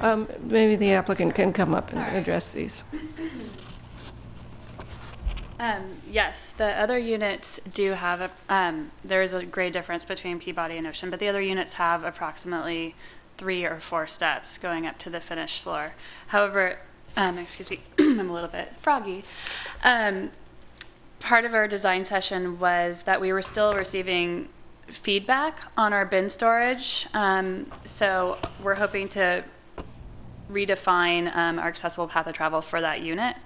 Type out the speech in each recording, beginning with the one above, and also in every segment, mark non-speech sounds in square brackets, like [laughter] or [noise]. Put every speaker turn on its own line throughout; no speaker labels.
Um, Maybe the applicant can come up and address these.
Um, yes, the other units do have, a- um, there is a great difference between Peabody and Ocean, but the other units have approximately three or four steps going up to the finished floor. However, um, excuse me, [clears throat] I'm a little bit froggy. Um, part of our design session was that we were still receiving feedback on our bin storage. Um, so we're hoping to redefine um, our accessible path of travel for that unit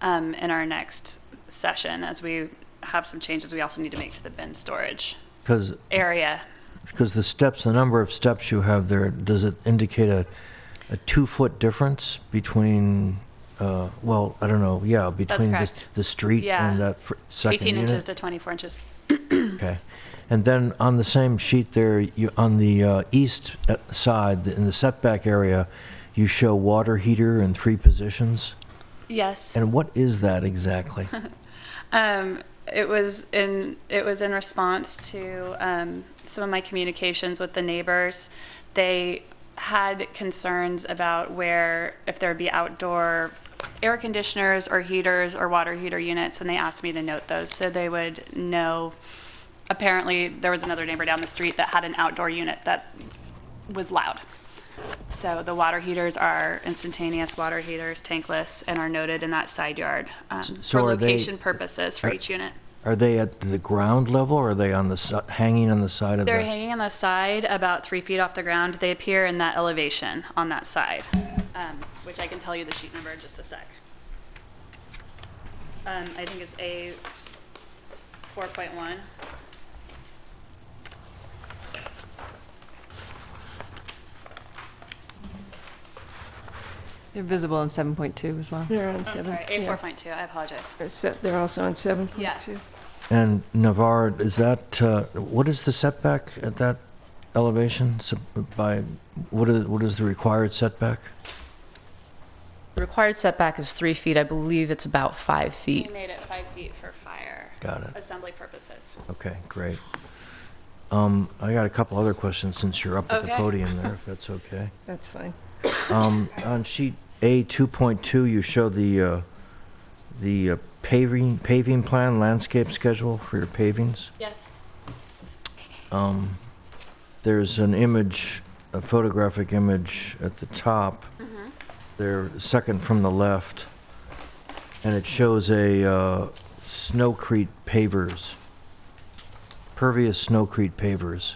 um, in our next session as we have some changes we also need to make to the bin storage
Because,
area.
because the steps, the number of steps you have there, does it indicate a, a two-foot difference between, uh, well, I don't know, yeah, between the,
correct.
the street
Yeah.
and that fir- second
18
unit?
inches to 24 inches.
Okay. And then on the same sheet there, you, on the uh, east uh, side, in the setback area, you show water heater in three positions.
Yes.
And what is
[laughs]
that exactly?
Um, it was in it was in response to um, some of my communications with the neighbors. They had concerns about where if there would be outdoor air conditioners or heaters or water heater units, and they asked me to note those so they would know. Apparently, there was another neighbor down the street that had an outdoor unit that was loud. So the water heaters are instantaneous water heaters, tankless, and are noted in that side yard um,
so
for
are they-
location purposes for
are-
each unit.
Are they at the ground level or are they on the, si- hanging on the side of the?
They're hanging on the side about three feet off the ground. They appear in that elevation on that side, um, which I can tell you the sheet number in just a sec. Um, I think it's A 4.1.
They're visible in 7.2 as well.
They're on
I'm
seven.
sorry, A
yeah.
4.2, I apologize.
They're se- They're also on seven.
Yeah.
And Navarre, is that, uh, what is the setback at that elevation So, by, what is, what is the required setback?
The Required setback is three feet. I believe it's about five
We
feet.
made it five feet for fire
Got it.
assembly purposes.
Okay, great. Um, I got a couple other questions since you're up at the
Okay.
podium there, if that's okay.
That's fine.
Um, on sheet A 2.2, you show the, uh, the uh, paving, paving plan, landscape schedule for your pavings.
Yes.
Um, There's an image, a photographic image at the top. There, second from the left. And it shows a uh, snowcrete pavers, pervious snowcrete pavers.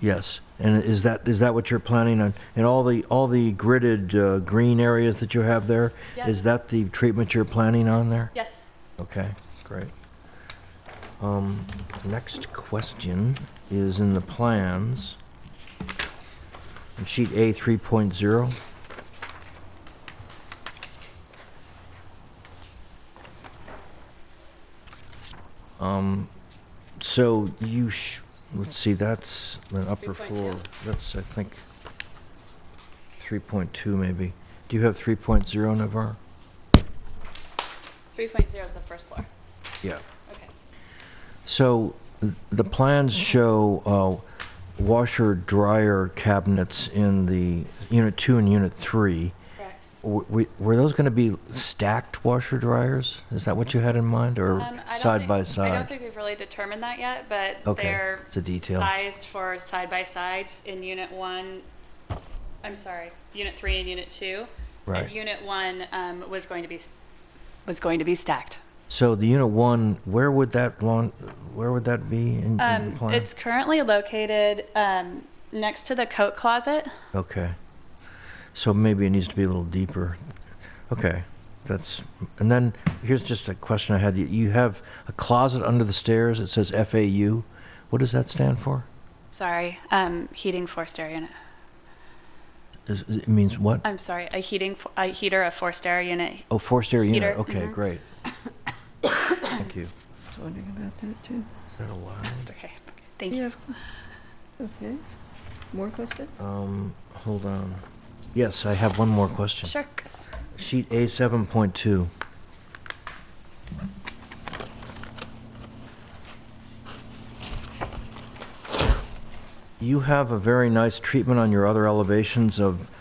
Yes, and is that, is that what you're planning on? And all the, all the gridded uh, green areas that you have there, is
Yes.
that the treatment you're planning on there?
Yes.
Okay, great. Um, next question is in the plans. On sheet A three point zero. Um, so you sh- let's see, that's the upper
3.2.
floor. That's, I think, three point two maybe. Do you have three point zero, Navarre?
3.0 is the first floor.
Yeah.
Okay.
So th- the plans show uh, washer dryer cabinets in the unit two and unit three.
Correct.
W- w- Were those going to be stacked washer dryers? Is that what you had in mind, or
Um, I don't
side
think-
by
I don't
side?
think we've really determined that yet, but
Okay,
they're
it's a detail.
sized for side by sides in unit one. I'm sorry, unit three and unit two.
Right.
And unit one um, was going to be s- was going to be stacked.
So the unit one, where would that lawn, where would that be in, in the
Um,
plan?
it's currently located um, next to the coat closet.
Okay. So maybe it needs to be a little deeper. Okay, that's, and then, here's just a question I had. You- You have a closet under the stairs, it says FAU. What does that stand for?
Sorry, um, heating forced air unit.
Is- is- It means what?
I'm sorry, a heating f- a heater, a forced air unit.
Oh, forced air unit,
heater,
okay,
mhm.
great. Thank you.
I was wondering about that, too.
Is that allowed?
Okay, thank you.
Yeah. Okay. More questions?
Um, hold on. Yes, I have one more question.
Sure.
Sheet A seven point two. You have a very nice treatment on your other elevations of